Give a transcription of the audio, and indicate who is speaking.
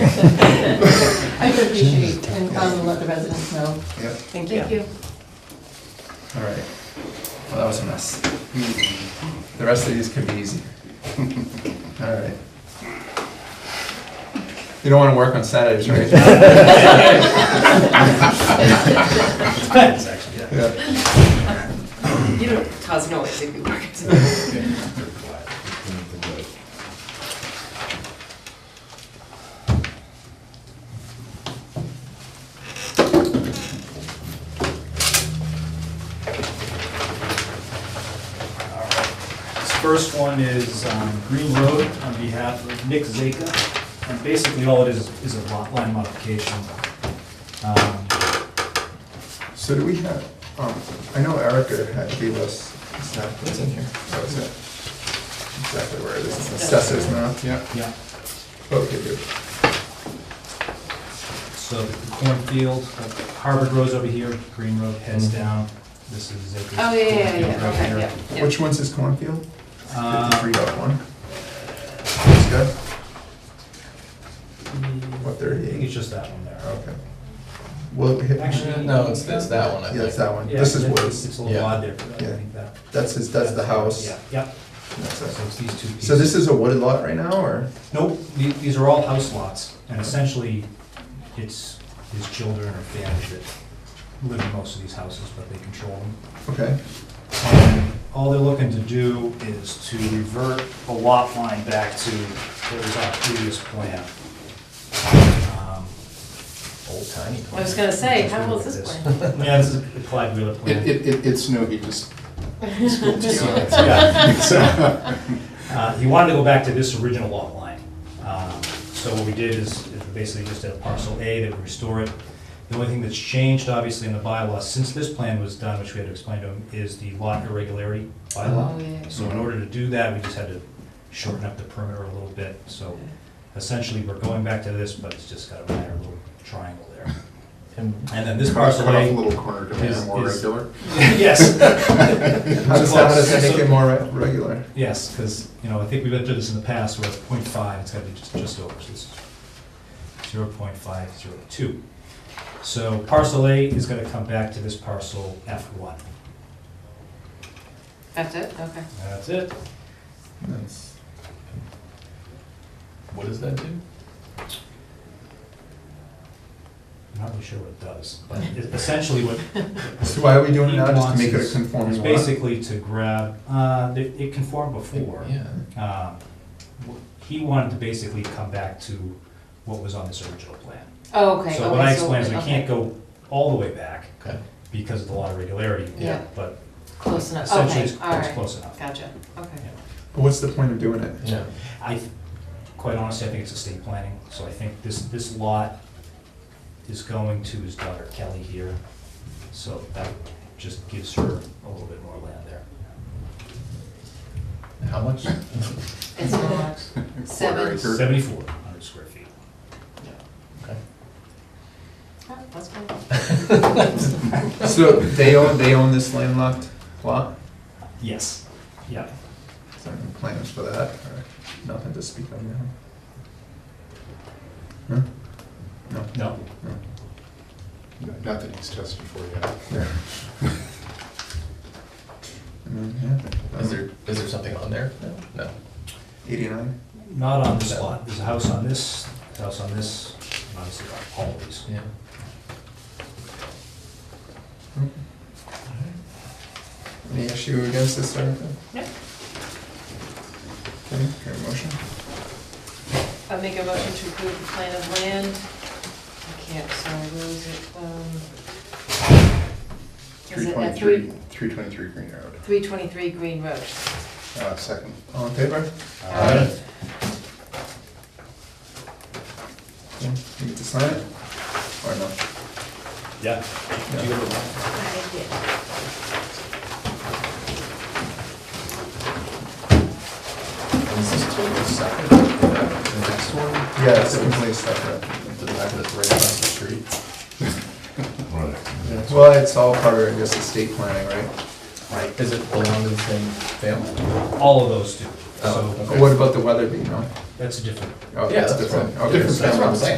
Speaker 1: Oh, I could appreciate and um, let the residents know.
Speaker 2: Yep.
Speaker 1: Thank
Speaker 3: Thank
Speaker 1: you.
Speaker 3: you.
Speaker 4: All right. Well, that was a mess. The rest of these could be easier. All right. You don't want to work on Saturdays, right?
Speaker 5: Depends, actually, yeah.
Speaker 4: Yeah.
Speaker 3: You don't cause noise if you work. it.
Speaker 5: This first one is um, Green Road on behalf of Nick Zeka. And basically, all it is, is a lot line modification. Um,
Speaker 4: So do we have, um, I know Erica had gave us, it's not, it's in here. That was it. Exactly where it is. It's Assessors now. Yeah.
Speaker 5: Yeah,
Speaker 4: Okay, good.
Speaker 5: so the cornfield, uh, Harvard Road's over here, Green Road heads
Speaker 4: Mm-hmm.
Speaker 5: down. This is Zeka's.
Speaker 1: Oh, yeah, yeah, yeah,
Speaker 5: cornfield right here.
Speaker 1: okay, yeah, yeah.
Speaker 4: Which one's this cornfield?
Speaker 5: Um,
Speaker 4: Fifty-three dot one. That's good. What,
Speaker 5: I think it's
Speaker 4: thirty-eight?
Speaker 5: just that one there.
Speaker 4: Okay. Well, hit-
Speaker 5: Actually-
Speaker 6: No, it's, it's that one, I
Speaker 4: yeah, Uh, it's
Speaker 6: think.
Speaker 4: that one.
Speaker 5: Yeah,
Speaker 4: This is
Speaker 5: it's-
Speaker 4: Woods.
Speaker 5: It's a little
Speaker 6: Yeah.
Speaker 5: odd there, but I
Speaker 4: Yeah.
Speaker 5: think that.
Speaker 4: That's his, that's the house.
Speaker 5: Yeah, yeah,
Speaker 4: That's
Speaker 5: so
Speaker 4: it.
Speaker 5: it's these two pieces.
Speaker 4: So this is a wooded lot right now, or?
Speaker 5: Nope, the- these are all house lots, and essentially, it's his children or family that live in most of these houses, but they control them.
Speaker 4: Okay,
Speaker 5: And All they're looking to do is to revert the lot line back to what was our previous plan. Um,
Speaker 6: Old tiny.
Speaker 1: I was gonna say, how old is this plan?
Speaker 5: Yeah, this is the Clyde Wheeler
Speaker 2: It,
Speaker 5: plan.
Speaker 2: it, it- it's no, he just spilled tea on it.
Speaker 5: Yeah.
Speaker 2: So,
Speaker 5: Uh, He wanted to go back to this original lot line. Um, So what we did is is basically just a parcel A that we restore it. The only thing that's changed, obviously, in the bylaw, since this plan was done, which we had to explain to him, is the lot irregularity bylaw.
Speaker 1: Oh, yeah.
Speaker 5: So in order to do that, we just had to shorten up the perimeter a little bit. So essentially, we're going back to this, but it's just got a minor little triangle there.
Speaker 6: And
Speaker 5: And then this
Speaker 2: cut off
Speaker 5: parcel
Speaker 2: a
Speaker 5: A.
Speaker 2: little corner to make
Speaker 5: is-
Speaker 2: it more
Speaker 5: is-
Speaker 2: regular.
Speaker 5: Yes.
Speaker 4: how does that, how does that make it more re- regular?
Speaker 5: Yes, because, you know, I think we've been through this in the past, where it's point five, it's gotta be just, just over, so this is zero point five, zero two. So parcel A is gonna come back to this parcel F one.
Speaker 1: That's it, okay.
Speaker 5: That's it.
Speaker 4: That's-
Speaker 6: what does that do?
Speaker 5: I'm not really sure what it does, but it- essentially what.
Speaker 4: So why are we doing it now, just to make it a
Speaker 5: Nuances.
Speaker 4: conforming
Speaker 5: It's
Speaker 4: lot?
Speaker 5: basically to grab, uh, it it conformed before.
Speaker 6: Yeah.
Speaker 5: Um, wh- He wanted to basically come back to what was on this original plan.
Speaker 1: Oh, okay.
Speaker 5: So what I
Speaker 1: okay,
Speaker 5: explained is we
Speaker 1: okay.
Speaker 5: can't go all the way back
Speaker 6: Okay.
Speaker 5: because of the lot of regularity.
Speaker 1: Yeah.
Speaker 5: But
Speaker 1: Close enough,
Speaker 5: essentially,
Speaker 1: okay,
Speaker 5: it's
Speaker 1: all
Speaker 5: it's
Speaker 1: right.
Speaker 5: close enough.
Speaker 1: Gotcha, okay.
Speaker 4: But what's the point of doing it?
Speaker 6: Yeah.
Speaker 5: I, th- quite honestly, I think it's estate planning, so I think this, this lot is going to his daughter Kelly here, so that just gives her a little bit more land there.
Speaker 6: How much?
Speaker 1: It's not,
Speaker 2: Quarter
Speaker 1: seven.
Speaker 2: acre.
Speaker 5: Seventy-four hundred square feet.
Speaker 6: Okay.
Speaker 1: Oh, that's good.
Speaker 4: So they own, they own this landlocked lot?
Speaker 5: Yes, yeah.
Speaker 4: Is there any plans for that, or nothing to speak of now? No?
Speaker 5: No,
Speaker 4: No?
Speaker 2: Not that he's tested for yet.
Speaker 4: Yeah. And then, yeah,
Speaker 6: Is
Speaker 4: um,
Speaker 6: there, is there something on there? No.
Speaker 4: eighty-nine?
Speaker 5: not on this lot. There's a house on this, a house on this, and obviously on all of these.
Speaker 6: Yeah.
Speaker 4: Any issue against this sort of thing?
Speaker 1: No.
Speaker 4: Okay, can I have a motion?
Speaker 1: I make a motion to approve the plan of land. I can't, sorry, where was it? Um, is
Speaker 2: Three
Speaker 1: it at
Speaker 2: twenty-three, three twenty-three Green Road.
Speaker 1: 323 Green Road.
Speaker 2: Uh, second.
Speaker 4: All in favor?
Speaker 5: Alright.
Speaker 4: Okay, You get to sign it? Or no? Yeah.
Speaker 5: Yeah. Do you have a-
Speaker 1: I did.
Speaker 6: Is this totally separate from the the next one?
Speaker 4: Yeah, it's completely separate.
Speaker 6: The back that's right across the street?
Speaker 4: Well, it's all part of this estate planning, right?
Speaker 5: Right,
Speaker 6: Is it belong to the same family?
Speaker 5: all of those do.
Speaker 6: Oh,
Speaker 5: So
Speaker 4: What about the Weatherby, no?
Speaker 5: that's a different
Speaker 4: Oh,
Speaker 6: Yeah,
Speaker 4: it's
Speaker 6: that's
Speaker 4: different.
Speaker 6: fine.
Speaker 4: Okay,
Speaker 6: That's what I'm
Speaker 4: so-
Speaker 6: saying.